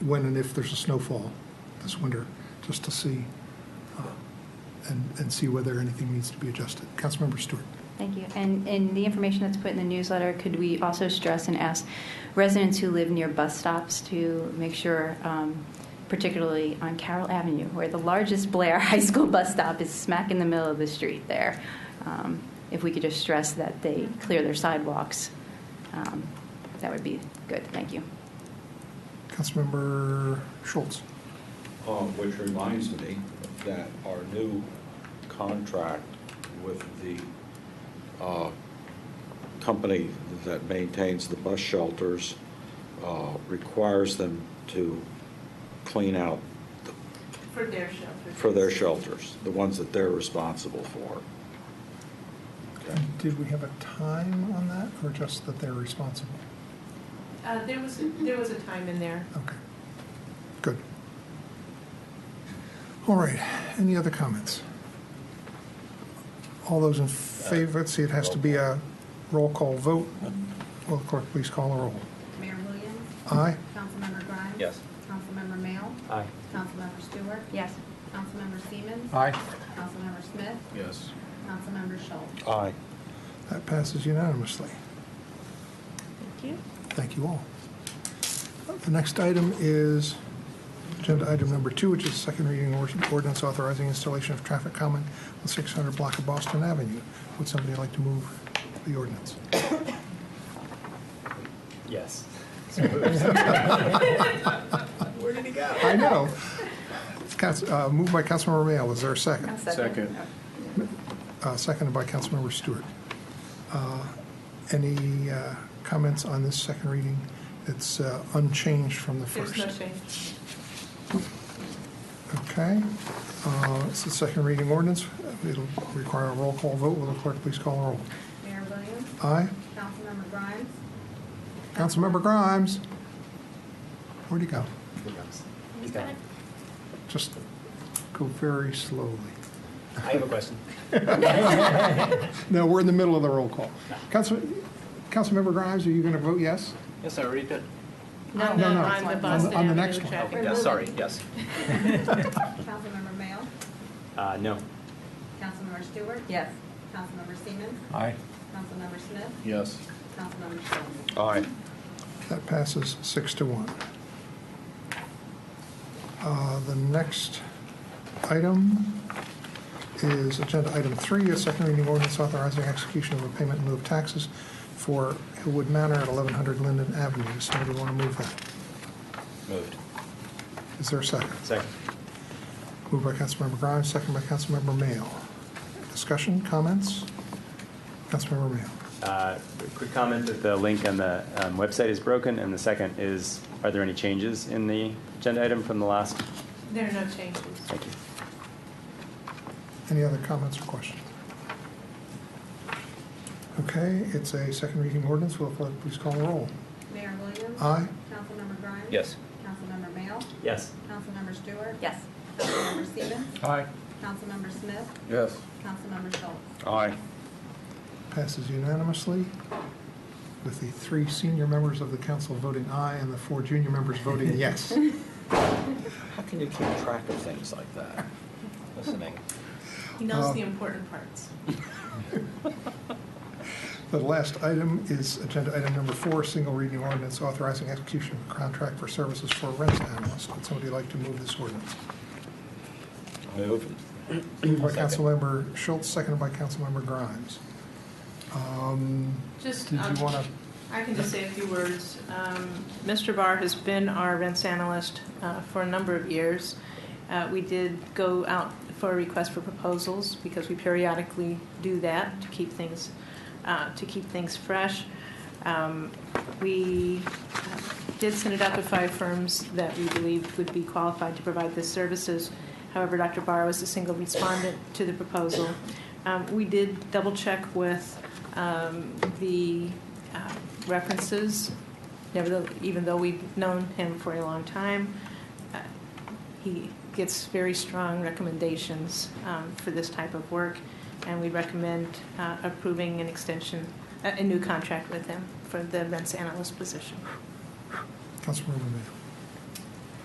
when and if there's a snowfall this winter, just to see, uh, and, and see whether anything needs to be adjusted. Councilmember Stewart. Thank you. And in the information that's put in the newsletter, could we also stress and ask residents who live near bus stops to make sure, um, particularly on Carroll Avenue, where the largest Blair High School bus stop is smack in the middle of the street there, um, if we could just stress that they clear their sidewalks, um, that would be good. Thank you. Councilmember Schultz. Um, Which reminds me that our new contract with the uh, company that maintains the bus shelters uh, requires them to clean out the- For their shelter. for their shelters, the ones that they're responsible for. Okay. Did we have a time on that, or just that they're responsible? Uh, there was, there was a time in there. Okay, good. All right, any other comments? All those in favor, let's see, it has to be a roll call vote. Will the clerk please call the roll? Mayor Williams? Aye? Councilmember Grimes? Yes. Councilmember Mayo? Aye. Councilmember Stewart? Yes. Councilmember Siemens? Aye. Councilmember Smith? Yes. Councilmember Schultz? Aye. That passes unanimously. Thank you. Thank you all. The next item is agenda item number two, which is second reading or- ordinance authorizing installation of traffic calming on 600 block of Boston Avenue. Would somebody like to move the ordinance? Yes. Where did he go? I know. It's Council- uh, Moved by Councilmember Mayo, is there a second? Second. Uh, Seconded by Councilmember Stewart. Uh, Any uh, comments on this second reading? It's uh, unchanged from the There's first. no change. Okay, Uh, it's the second reading ordinance. It'll require a roll call vote. Will the clerk please call the roll? Mayor Williams? Aye? Councilmember Grimes? Councilmember Grimes? Where'd he go? He's gone. Just go very slowly. I have a question. No, we're in the middle of the roll call. Council, Councilmember Grimes, are you going to vote yes? Yes, I already did. No, no, no. On On the the- Boston on the next Avenue one. traffic. Okay, yes, sorry, yes. Councilmember Mayo? Uh, no. Councilmember Stewart? Yes. Councilmember Siemens? Aye. Councilmember Smith? Yes. Councilmember Schultz? Aye. That passes six to one. Uh, The next item is agenda item three, a second reading ordinance authorizing execution of a payment in lieu of taxes for Hillwood Manor at 1100 Linden Avenue. Does Somebody want to move that? Moved. Is there a second? Second. Moved by Councilmember Grimes, second by Councilmember Mayo. Discussion, comments? Councilmember Mayo. Uh, Quick comment that the link on the um, website is broken, and the second is, are there any changes in the agenda item from the last? There are no changes. Thank you. Any other comments or questions? Okay, it's a second reading ordinance. Will the clerk please call the roll? Mayor Williams? Aye. Councilmember Grimes? Yes. Councilmember Mayo? Yes. Councilmember Stewart? Yes. Councilmember Siemens? Aye. Councilmember Smith? Yes. Councilmember Schultz? Aye. Passes unanimously with the three senior members of the council voting aye and the four junior members voting yes. How can you keep track of things like that? Listening. He knows Uh, the important parts. The last item is agenda item number four, single reading ordinance authorizing execution of a contract for services for a rent analyst. Would somebody like to move this ordinance? Moved. Moved by Second. Councilmember Schultz, seconded by Councilmember Grimes. Um, Just. Did um, you want to? I can just say a few words. Um, Mr. Barr has been our rents analyst uh, for a number of years. Uh, We did go out for a request for proposals because we periodically do that to keep things, uh, to keep things fresh. Um, We uh, did send it out to five firms that we believed would be qualified to provide the services. However, Dr. Barr was the single respondent to the proposal. Um, We did double-check with um, the uh, references, nevertheless, even though we've known him for a long time, uh, he gets very strong recommendations um, for this type of work, and we recommend uh, approving an extension, a a new contract with him for the events analyst position. Councilmember Mayo.